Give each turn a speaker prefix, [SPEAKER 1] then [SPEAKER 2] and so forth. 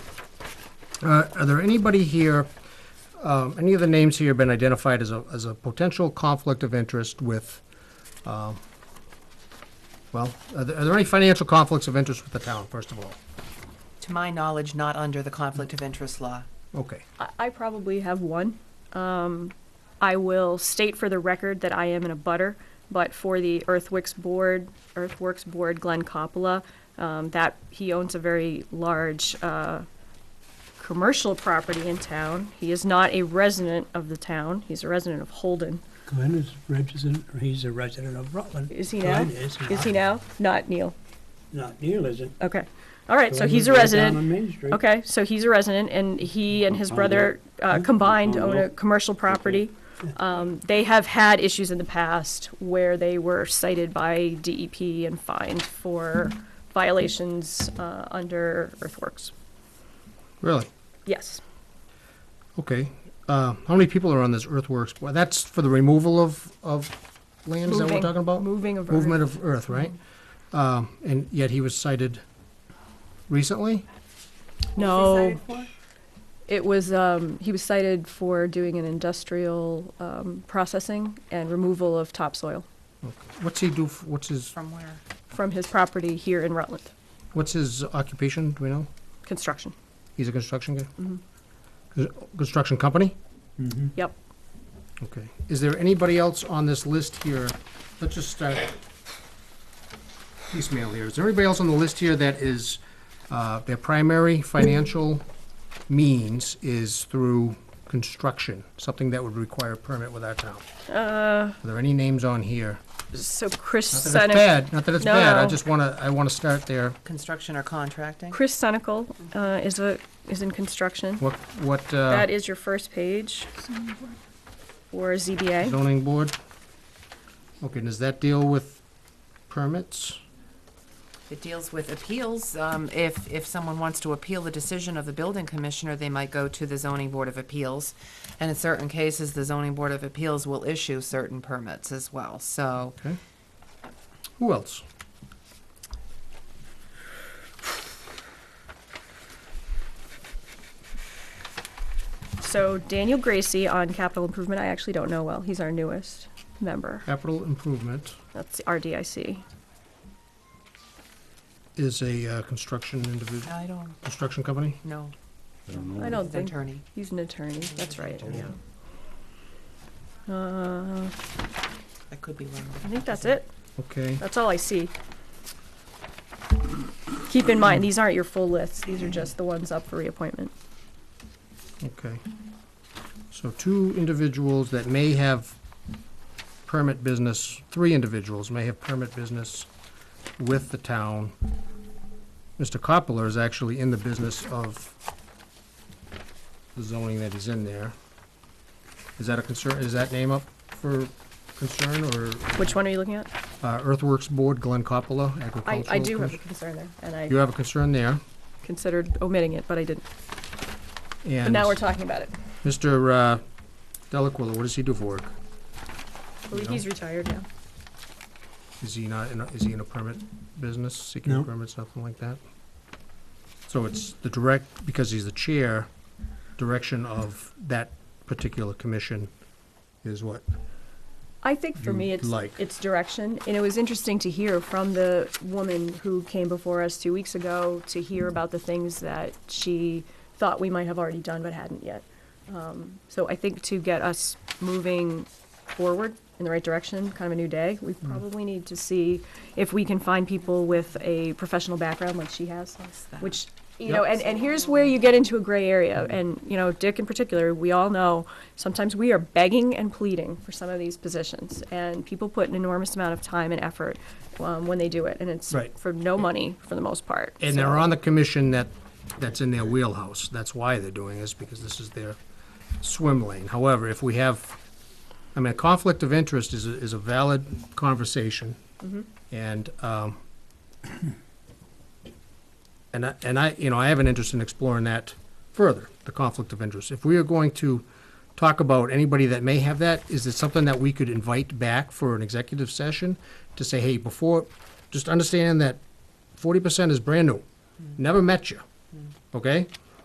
[SPEAKER 1] Uh, Are there anybody here, um, any of the names here have been identified as a, as a potential conflict of interest with, um, well, are there are there any financial conflicts of interest with the town, first of all?
[SPEAKER 2] To my knowledge, not under the conflict of interest law.
[SPEAKER 1] Okay.
[SPEAKER 3] I, I probably have one. Um, I will state for the record that I am in a butter, but for the Earthworks Board, Earthworks Board, Glenn Coppola, um, that he owns a very large uh, commercial property in town. He is not a resident of the town. He's a resident of Holden.
[SPEAKER 4] Glenn is resident, or he's a resident of Rutland.
[SPEAKER 3] Is he now?
[SPEAKER 4] Glenn is not.
[SPEAKER 3] Is he now? Not Neil.
[SPEAKER 4] Not Neil, is it?
[SPEAKER 3] Okay. All right. So
[SPEAKER 4] Glenn
[SPEAKER 3] he's
[SPEAKER 4] is
[SPEAKER 3] a
[SPEAKER 4] right
[SPEAKER 3] resident.
[SPEAKER 4] Down on Main Street.
[SPEAKER 3] Okay, so he's a resident, and he and his
[SPEAKER 1] Oh,
[SPEAKER 3] brother uh, combined own a commercial property. Um, They have had issues in the past where they were cited by DEP and fined for violations uh, under earthworks.
[SPEAKER 1] Really?
[SPEAKER 3] Yes,
[SPEAKER 1] Okay. Uh, How many people are on this earthworks? Well, that's for the removal of, of land, is that what we're
[SPEAKER 3] Moving.
[SPEAKER 1] talking about?
[SPEAKER 3] moving of
[SPEAKER 1] Movement
[SPEAKER 3] earth.
[SPEAKER 1] of earth, right? Um, And yet he was cited recently?
[SPEAKER 3] No, it was, um, he was cited for doing an industrial um, processing and removal of topsoil
[SPEAKER 1] What's he do, f- what's his,
[SPEAKER 2] From where?
[SPEAKER 3] from his property here in Rutland,
[SPEAKER 1] what's his occupation, do we know?
[SPEAKER 3] construction.
[SPEAKER 1] He's a construction guy?
[SPEAKER 3] Mm-hmm.
[SPEAKER 1] Cons- Construction company?
[SPEAKER 3] Yep.
[SPEAKER 1] Okay. Is there anybody else on this list here? Let's just start piecemeal here. Is there anybody else on the list here that is, uh, their primary financial means is through construction? Something that would require a permit with our town?
[SPEAKER 3] Uh,
[SPEAKER 1] Are there any names on here?
[SPEAKER 3] So Chris
[SPEAKER 1] Not that it's
[SPEAKER 3] Senek
[SPEAKER 1] bad, not that it's
[SPEAKER 3] No,
[SPEAKER 1] bad, I
[SPEAKER 3] no.
[SPEAKER 1] just wanna, I wanna start there.
[SPEAKER 2] Construction or contracting?
[SPEAKER 3] Chris Senecal uh, is a is in construction.
[SPEAKER 1] What, what, uh,
[SPEAKER 3] That is your first page for ZBA.
[SPEAKER 1] zoning board? Okay, does that deal with permits?
[SPEAKER 2] It deals with appeals. Um, if, if someone wants to appeal the decision of the building commissioner, they might go to the zoning board of appeals. And in certain cases, the zoning board of appeals will issue certain permits as well, so.
[SPEAKER 1] Okay. Who else?
[SPEAKER 3] So Daniel Gracie on capital improvement. I actually don't know well. He's our newest member.
[SPEAKER 1] Capital improvement
[SPEAKER 3] That's the RDIC.
[SPEAKER 1] is a uh, construction individual,
[SPEAKER 2] I don't
[SPEAKER 1] construction company?
[SPEAKER 2] know.
[SPEAKER 3] I don't
[SPEAKER 2] The
[SPEAKER 3] think
[SPEAKER 2] attorney.
[SPEAKER 3] he's an attorney. That's right.
[SPEAKER 2] Yeah.
[SPEAKER 3] Uh,
[SPEAKER 2] I could be wrong.
[SPEAKER 3] I think that's it.
[SPEAKER 1] Okay,
[SPEAKER 3] That's all I see. Keep in mind, these aren't your full lists. These are just the ones up for reappointment.
[SPEAKER 1] okay. So two individuals that may have permit business, three individuals may have permit business with the town. Mr. Coppola is actually in the business of the zoning that is in there. Is that a concern, is that name up for concern, or
[SPEAKER 3] Which one are you looking at?
[SPEAKER 1] uh, Earthworks Board, Glenn Coppola,
[SPEAKER 3] I,
[SPEAKER 1] agricultural?
[SPEAKER 3] I do have a
[SPEAKER 1] Commission?
[SPEAKER 3] concern there, and I
[SPEAKER 1] You have a concern there,
[SPEAKER 3] considered omitting it, but I didn't.
[SPEAKER 1] and.
[SPEAKER 3] But now we're talking about it.
[SPEAKER 1] Mr. uh, Delacuilla, what does he do for work?
[SPEAKER 3] Well, He's retired now.
[SPEAKER 1] Is he not, in a- is he in a permit business, seeking
[SPEAKER 4] No.
[SPEAKER 1] a permit, something like that? So it's the direct, because he's the chair, direction of that particular commission is what?
[SPEAKER 3] I think for
[SPEAKER 1] You
[SPEAKER 3] me, it's,
[SPEAKER 1] like.
[SPEAKER 3] it's direction, and it was interesting to hear from the woman who came before us two weeks ago to hear about the things that she thought we might have already done but hadn't yet. Um, So I think to get us moving forward in the right direction, kind of a new day, we
[SPEAKER 1] Mm-hmm.
[SPEAKER 3] probably need to see if we can find people with a professional background like she has. which you know and, and here's where you get into a gray area
[SPEAKER 1] Mm-hmm.
[SPEAKER 3] and you know dick in particular we all know sometimes we are begging and pleading for some of these positions and people put an enormous amount of time and effort um, when they do it and it's
[SPEAKER 1] Right.
[SPEAKER 3] for no money for the most part
[SPEAKER 1] And they're on the commission that, that's in their wheelhouse, that's why they're doing this, because this is their swim lane. However, if we have, I mean, a conflict of interest is, a- is a valid conversation. And, um, and I, and I, you know, I have an interest in exploring that further, the conflict of interest. If we are going to talk about anybody that may have that, is it something that we could invite back for an executive session? To say, hey, before, just understand that forty percent is brand new, never met you, okay?